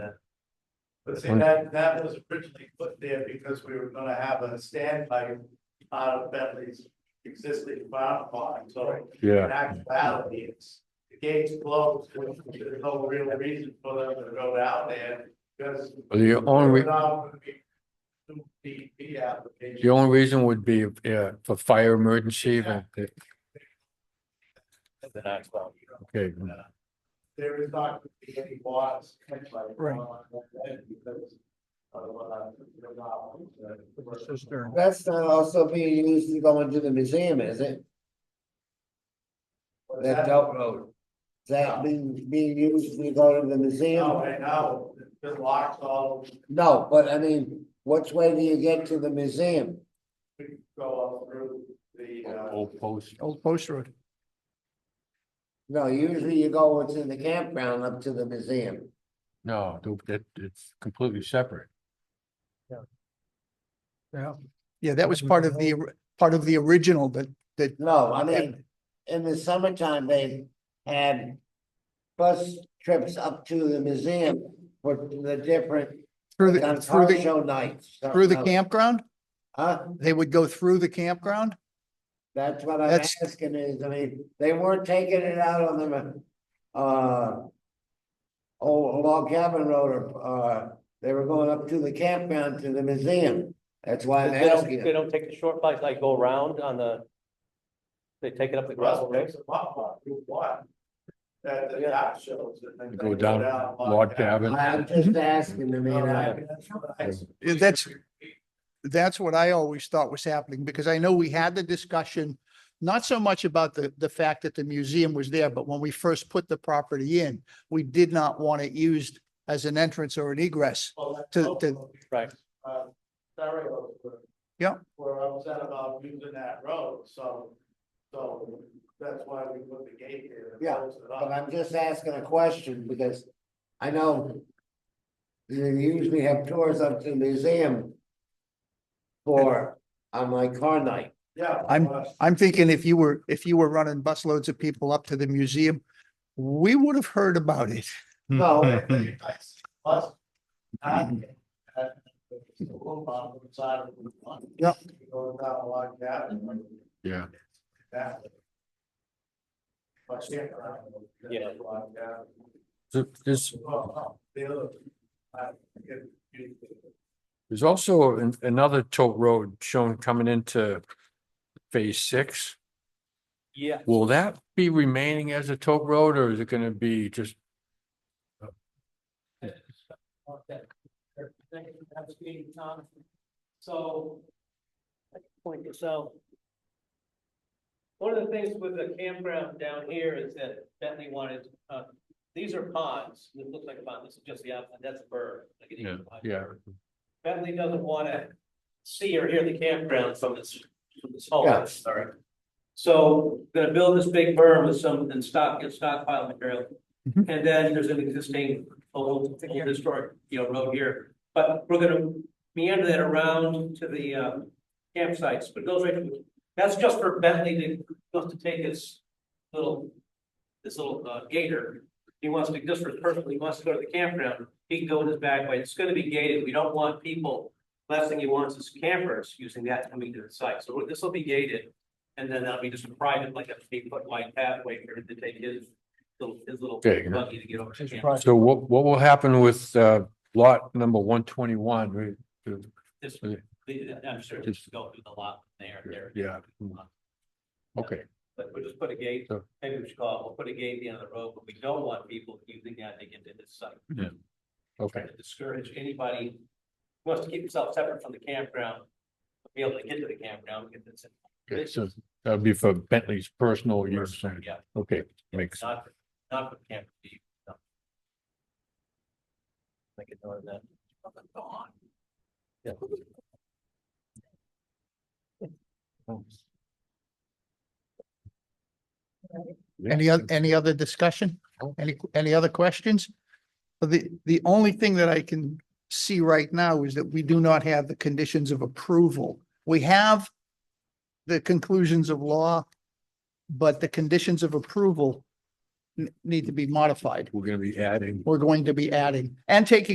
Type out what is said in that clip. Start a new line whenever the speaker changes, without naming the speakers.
But see, that, that was originally put there because we were gonna have a standby out of Bentley's existing bond barn, so.
yeah,
In actuality, it's, the gate's closed, which there's no real reason for them to go down there, because.
the only,
they're not gonna be Two DEP
the
application,
only reason would be, yeah, for fire emergency, event.
the next one, you know,
okay,
uh, There is not gonna be any bars.
Right.
Because. Otherwise, they're not.
It's just during-
That's not also being used to go into the museum, is it?
What's
That Delk Road. Is that being, being used to go to the
No,
museum?
right Oh, now, it locks all,
No, but I mean, which way do you get to the museum?
we can go up through the, uh,
old post,
Old Post Road.
No, usually you go what's in the campground up to the museum.
no, that, it's completely separate.
Yeah. Yeah, that was part of the, or- part of the original that, that.
No, I mean, in the summertime, they had bus trips up to the museum for the different
Through
on
the, through
car
the,
show nights.
through the
something else.
campground?
Huh?
They would go through the campground?
That's what I'm
That's-
asking is, I mean, they weren't taking it out on the, uh. Old log cabin road, or, uh, they were going up to the campground to the museum. That's why I'm
They don't,
asking.
they
you.
don't take the short flights, like go around on the. They take it up the
Russell
gravel road.
makes a pop up, Route one. That the yacht shows and then.
Go
they
down Log Cabin.
I'm just asking, I
Oh,
mean, I,
Yeah, That's, that's what I always thought was happening because I know we had the discussion, not so much about the, the fact that the museum was there, but when we first put the property in, we did not want it used as an entrance or an egress. to- to-
Right.
Uh, Surrey was where-
Yeah.
Where I was at about using that road, so, so that's why we put the gate here. and
Yeah,
closed it
but
up.
I'm just asking a question because I know. You usually have tours up to the museum. For, on my car night.
Yeah.
I'm-
but- uh,
I'm thinking if you were, if you were running busloads of people up to the museum, we would have heard about it.
No,
I think I see Plus. not get that, but it's a little on the side of Route one.
Yeah.
You Go down Log Cabin.
Yeah.
That. But yeah. I don't know.
Yeah.
Log Cabin.
There- There's,
Well, no, the other, I forget, you-
there's also an- another tote road shown coming into phase six.
Yeah,
Will that be remaining as a tote road or is it gonna be just,
Thank you for having me, Tom. So. I can Point this out. One of the things with the campground down here is that Bentley wanted, uh, these are ponds, it looks like a pond, this is just the outside, that's a bird. like an
yeah,
eagle eye
yeah,
bird. Bentley doesn't wanna see or hear the campground from this, from this home,
Yeah.
sorry. So gonna build this big berm with some, and stock, and stockpile material.
Mhm.
And then there's an existing old, old historic, you know, road here, but we're gonna meander that around to the, uh, campsites, but it goes right, to- that's just for Bentley to, just to take his little, this little, uh, gator. He wants to, just for personally, he wants to go to the campground, he can go in his back way, it's gonna be gated, we don't want people Last thing he wants is campers using that coming to the site, so this will be gated. And then that'll be just a private, like a eight foot wide pathway for him to take his little, his little
Okay, yeah.
buggy to get over. to
His
camp.
private-
So what, what will happen with, uh, lot number one twenty-one?
This-
Yeah.
the- I'm sure just go through the lot there, there.
Yeah, okay,
But we'll just put a gate,
So-
maybe we should call, it, we'll put a gate at the end of the road, but we don't want people using that to get to this site.
okay,
Trying to discourage anybody who wants to keep himself separate from the campground. Be able to get to the campground, get this.
okay, so that'd be for Bentley's personal use,
Yeah.
okay, makes,
Not, for- not for camp. beef, no. Make a note of that. Go on. Yeah.
Yeah.
Any other, any other discussion?
No.
Any, any other questions? The, the only thing that I can see right now is that we do not have the conditions of approval. We have the conclusions of law, but the conditions of approval n- need to be modified.
we're gonna be adding
We're going to be adding and taking